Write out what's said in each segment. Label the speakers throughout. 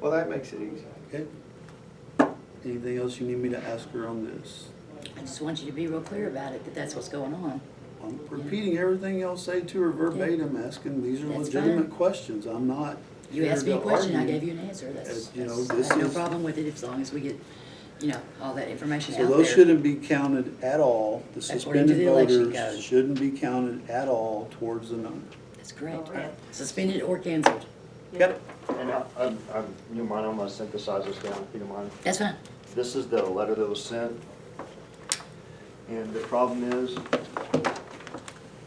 Speaker 1: Well, that makes it easy.
Speaker 2: Okay. Anything else you need me to ask her on this?
Speaker 3: I just want you to be real clear about it, that that's what's going on.
Speaker 2: I'm repeating everything y'all say to her verbatim, asking, these are
Speaker 3: That's
Speaker 2: legitimate
Speaker 3: fine.
Speaker 2: questions, I'm not.
Speaker 3: You
Speaker 2: here
Speaker 3: asked me a
Speaker 2: to
Speaker 3: question, I
Speaker 2: argue.
Speaker 3: gave you an answer, that's,
Speaker 2: Uh, you know,
Speaker 3: that's- I
Speaker 2: this
Speaker 3: have no
Speaker 2: is-
Speaker 3: problem with it as long as we get, you know, all that information
Speaker 2: So
Speaker 3: out
Speaker 2: those
Speaker 3: there.
Speaker 2: shouldn't be counted at all, the
Speaker 3: According to
Speaker 2: suspended
Speaker 3: the election
Speaker 2: voters
Speaker 3: code.
Speaker 2: shouldn't be counted at all towards the number.
Speaker 3: That's correct.
Speaker 4: Correct.
Speaker 3: Suspended or canceled,
Speaker 2: Yep.
Speaker 5: And I, I'm, I'm- you don't mind, I'm gonna synthesize this down, if you don't mind.
Speaker 3: that's fine.
Speaker 5: This is the letter that was sent. And the problem is,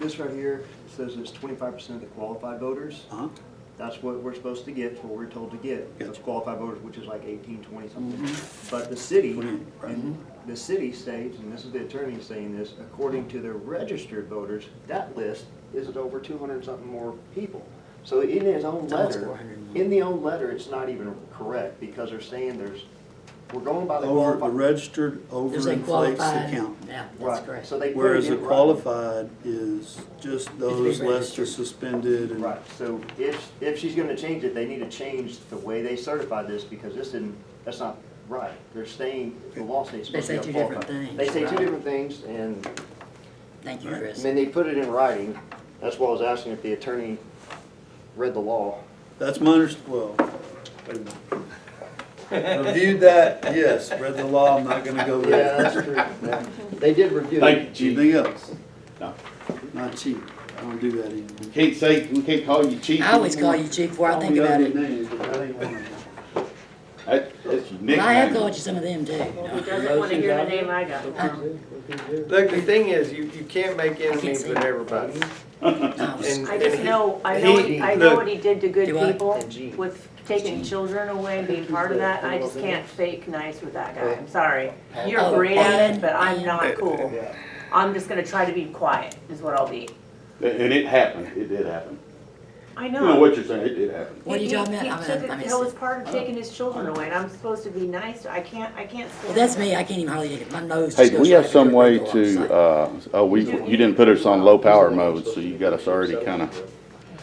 Speaker 5: this right here says it's twenty-five percent of the qualified voters.
Speaker 2: Huh?
Speaker 5: That's what we're supposed to get, it's what we're told to get. That's
Speaker 2: Gotcha. Mm-hmm.
Speaker 5: qualified voters, which is like eighteen, twenty something. But the city,
Speaker 2: Twenty, right.
Speaker 5: and the city states, and this is the attorney saying this, according to the registered voters, that list is over two hundred something more people. So in his own
Speaker 3: It's almost
Speaker 5: letter,
Speaker 3: 400.
Speaker 5: in the own letter, it's not even correct because they're saying there's, we're going by the
Speaker 2: Over, the
Speaker 5: qualified.
Speaker 2: registered
Speaker 3: There's a
Speaker 2: overinflates the
Speaker 3: qualified,
Speaker 2: count.
Speaker 3: yeah, that's
Speaker 5: Right,
Speaker 3: correct.
Speaker 5: So they put it
Speaker 2: Whereas
Speaker 5: in
Speaker 2: the
Speaker 5: writing.
Speaker 2: qualified is just those less the
Speaker 3: registered.
Speaker 2: suspended and.
Speaker 5: Right, so if, if she's gonna change it, they need to change the way they certify this, because this didn't, that's not right. They're saying, the law states.
Speaker 3: They say two different things,
Speaker 5: They say two
Speaker 3: right.
Speaker 5: different things, and
Speaker 3: Thank you,
Speaker 5: I
Speaker 3: Chris.
Speaker 5: mean, they put it in writing. That's why I was asking if the attorney read the law.
Speaker 2: That's my under, well, wait a minute. Reviewed that, yes, read the law, I'm not gonna go
Speaker 5: Yeah,
Speaker 2: there.
Speaker 5: that's true. Yeah. They did review it.
Speaker 6: Thank you,
Speaker 2: Anything
Speaker 6: chief.
Speaker 2: else?
Speaker 6: No.
Speaker 2: Not cheap, I don't do that anymore.
Speaker 6: We Can't say, we can't call you chief.
Speaker 3: I always call you chief before I think about it.
Speaker 6: That, that's your
Speaker 3: Well, I have
Speaker 6: nickname.
Speaker 3: called you some of them too.
Speaker 4: He doesn't want to hear the name I got.
Speaker 1: Look, the thing is, you, you can't make enemies
Speaker 3: see.
Speaker 1: with everybody.
Speaker 3: No,
Speaker 1: And-
Speaker 4: I just
Speaker 1: and he-
Speaker 4: know, I know, what he- I know what he did to good
Speaker 3: Do I?
Speaker 4: people
Speaker 1: Gene.
Speaker 4: with taking children away, being part of that, and I just can't fake nice with that guy, I'm sorry. You're
Speaker 3: Oh,
Speaker 4: great at
Speaker 3: and-
Speaker 4: it, but I'm
Speaker 1: and-
Speaker 4: not cool. I'm just gonna try to be quiet, is what I'll be.
Speaker 6: And it happened, it did happen.
Speaker 4: I
Speaker 6: You know
Speaker 4: know.
Speaker 6: what you're saying, it did happen.
Speaker 3: What are you
Speaker 4: He-
Speaker 3: talking about?
Speaker 4: he
Speaker 3: I'm
Speaker 4: took
Speaker 3: gonna- I
Speaker 4: it-
Speaker 3: missed
Speaker 4: That
Speaker 3: it.
Speaker 4: was part of taking his children away, and I'm supposed to be nice, I can't, I can't
Speaker 3: Well,
Speaker 4: stand
Speaker 3: that's
Speaker 4: it.
Speaker 3: me, I can't even hardly take it, my nose
Speaker 7: Hey,
Speaker 3: just
Speaker 7: do
Speaker 3: goes
Speaker 7: we
Speaker 3: right
Speaker 7: have
Speaker 3: up
Speaker 7: some
Speaker 3: here
Speaker 7: way
Speaker 3: the wall. It's
Speaker 7: to,
Speaker 3: like-
Speaker 7: uh, oh, we, you didn't put us on low power mode, so you got us already kinda,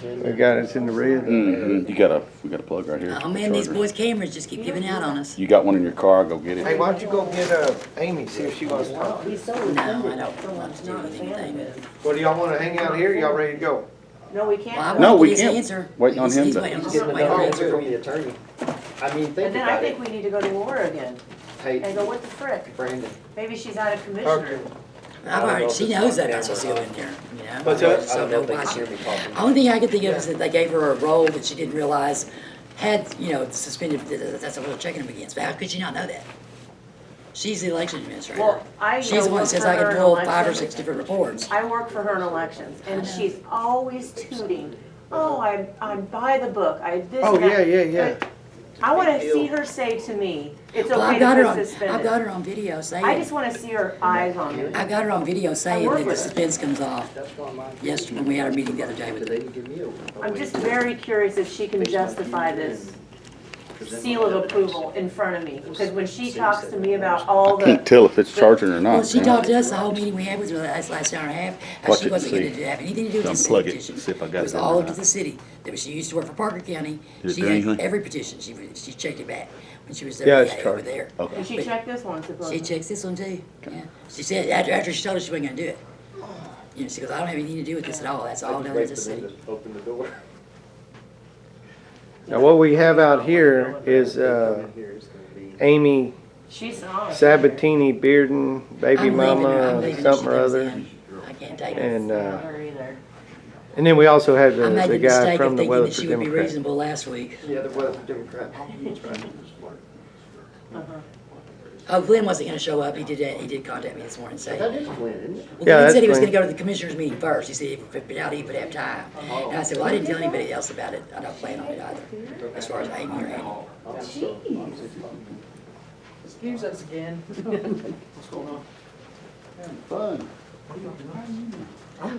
Speaker 1: They got us in the red.
Speaker 7: Mhm, you got a, we got a plug right here.
Speaker 3: Oh man, these
Speaker 7: Charger.
Speaker 3: boys' cameras just keep giving out on us.
Speaker 7: You got one in your car, go get
Speaker 1: Hey,
Speaker 7: it.
Speaker 1: why don't you go get, uh, Amy, see if she wants to talk?
Speaker 3: No, I don't want to do anything, but
Speaker 1: Well, do y'all wanna hang out here? Y'all ready to go?
Speaker 4: No, we
Speaker 3: Well, I
Speaker 4: can't.
Speaker 3: want-
Speaker 7: No,
Speaker 3: He
Speaker 7: we
Speaker 3: needs to
Speaker 7: can't.
Speaker 3: answer.
Speaker 7: Waiting on
Speaker 3: He's-
Speaker 7: him
Speaker 3: he's
Speaker 7: to.
Speaker 3: waiting.
Speaker 5: Just getting
Speaker 3: Wait,
Speaker 5: another
Speaker 3: wait,
Speaker 5: answer
Speaker 3: wait.
Speaker 5: from the attorney. I mean,
Speaker 4: And
Speaker 5: think
Speaker 4: then I
Speaker 5: about
Speaker 4: think
Speaker 5: it.
Speaker 4: we need to go to war again, and go,
Speaker 5: Hey,
Speaker 4: what the frick?
Speaker 5: Brandon.
Speaker 4: Maybe she's out of commissioner.
Speaker 3: I've already, she knows that, that's what's going there, you know?
Speaker 1: What's that?
Speaker 5: I
Speaker 3: So
Speaker 5: don't know if they can
Speaker 3: nobody,
Speaker 5: hear me talking.
Speaker 3: only thing I could think of is that they gave her a role that she didn't realize had, you know, suspended, that's what we're checking them against, but how could she not know that? She's the election administrator.
Speaker 4: Well, I
Speaker 3: She's the one
Speaker 4: know
Speaker 3: that says
Speaker 4: for
Speaker 3: I
Speaker 4: her
Speaker 3: can
Speaker 4: in
Speaker 3: pull five or
Speaker 4: elections-
Speaker 3: six different reports.
Speaker 4: I work for her in elections, and
Speaker 3: know.
Speaker 4: she's always tooting, oh, I'm, I'm by the book, I this
Speaker 1: Oh,
Speaker 4: and that."
Speaker 1: yeah, yeah, yeah.
Speaker 4: But I wanna see her say to me, it's
Speaker 3: Well,
Speaker 4: okay
Speaker 3: I've got her
Speaker 4: to
Speaker 3: on,
Speaker 4: put
Speaker 3: I've got
Speaker 4: suspended.
Speaker 3: her on video saying.
Speaker 4: I just wanna see her eyes on me.
Speaker 3: I got her on video saying
Speaker 4: work
Speaker 3: that the
Speaker 4: with her.
Speaker 3: suspense comes off yesterday, when we had our meeting the other day with
Speaker 5: They
Speaker 3: her.
Speaker 5: didn't give me a- a
Speaker 4: I'm
Speaker 5: way
Speaker 4: just
Speaker 5: to
Speaker 4: very curious if she can
Speaker 5: Based on
Speaker 4: justify
Speaker 5: you
Speaker 4: this
Speaker 5: present
Speaker 4: seal of
Speaker 5: evidence.
Speaker 4: approval in front of me, because when she talks to me about all the.
Speaker 6: uh,
Speaker 7: Can't tell if it's charging or
Speaker 3: Well,
Speaker 7: not.
Speaker 3: she
Speaker 7: man.
Speaker 3: talked to us the whole meeting we had with her last, last hour and a half, how
Speaker 7: Watch
Speaker 3: she
Speaker 7: it,
Speaker 3: wasn't
Speaker 7: see.
Speaker 3: gonna do- have anything to do with this
Speaker 7: Unplug
Speaker 3: city
Speaker 7: it,
Speaker 3: petition.
Speaker 7: see if I got
Speaker 3: It
Speaker 7: it
Speaker 3: was
Speaker 7: in
Speaker 3: all
Speaker 7: or
Speaker 3: up to
Speaker 7: not.
Speaker 3: the city, that was, she used to work for Parker County,
Speaker 7: Did it
Speaker 3: she
Speaker 7: do
Speaker 3: had
Speaker 7: anything?
Speaker 3: every petition, she, re- she checked it back when she was
Speaker 8: Yeah,
Speaker 3: there,
Speaker 8: it's
Speaker 3: over
Speaker 8: charged.
Speaker 3: there.
Speaker 4: And she checked this one supposedly.
Speaker 3: She checks this one too, yeah, she said, after, after she told us she wasn't gonna do it. You know, she goes, I don't have anything to do with this at all, that's all down to the
Speaker 5: for them
Speaker 3: city.
Speaker 5: to Open the door.
Speaker 8: Now, what we have out here is uh,
Speaker 5: Here is gonna be.
Speaker 8: Amy
Speaker 4: She's on.
Speaker 8: Sabatini Bearden, baby
Speaker 3: I'm leaving her- I'm
Speaker 8: mama,
Speaker 3: leaving her, she
Speaker 8: something or
Speaker 3: goes
Speaker 8: other.
Speaker 3: in. I can't take it.
Speaker 8: And,
Speaker 4: Not
Speaker 8: uh,
Speaker 4: her either.
Speaker 8: and then we also have
Speaker 1: uh,
Speaker 3: I
Speaker 8: the,
Speaker 3: made
Speaker 8: the
Speaker 3: the
Speaker 8: guy
Speaker 3: mistake of
Speaker 8: from the
Speaker 3: thinking that
Speaker 8: Weatherford
Speaker 3: she would be
Speaker 8: Democrat.
Speaker 3: reasonable last week.
Speaker 5: Yeah, the weather Democrat.
Speaker 3: Oh, Glenn wasn't gonna show up, he did, he did contact me this morning, and say.
Speaker 5: That is Glenn,
Speaker 3: Well,
Speaker 5: isn't it?
Speaker 8: Yeah,
Speaker 3: Glenn
Speaker 8: that's
Speaker 3: said he was gonna
Speaker 8: fine.
Speaker 3: go to the commissioners meeting first, he said if it out, he would have time. And I said, well, I didn't tell anybody else about it, I don't plan on it either, as far as Amy or Andy.
Speaker 9: Excuse us again.
Speaker 6: Fun.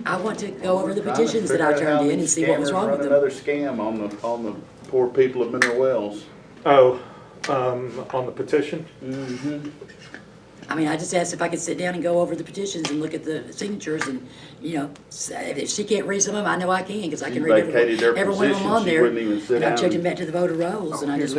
Speaker 3: I want to go over the
Speaker 6: Trying to
Speaker 3: petitions that
Speaker 6: figure
Speaker 3: I
Speaker 6: out how
Speaker 3: turned in and
Speaker 6: these
Speaker 3: see what was
Speaker 6: scammers
Speaker 3: wrong with
Speaker 6: run
Speaker 3: them.
Speaker 6: Another scam on the, on the poor people of Mineral Wells.
Speaker 10: Oh, um, on the petition?
Speaker 3: I mean, I just asked if I could sit down and go over the petitions and look at the signatures and, you know, say, if she can't read some of them, I know I can, because I
Speaker 6: She
Speaker 3: can read
Speaker 6: vacated
Speaker 3: every,
Speaker 6: their
Speaker 3: every one of them
Speaker 6: position.
Speaker 3: on
Speaker 6: She
Speaker 3: there.
Speaker 6: wouldn't even sit
Speaker 3: And I
Speaker 6: down
Speaker 3: checked them
Speaker 6: and-
Speaker 3: back to the voter rolls, and I just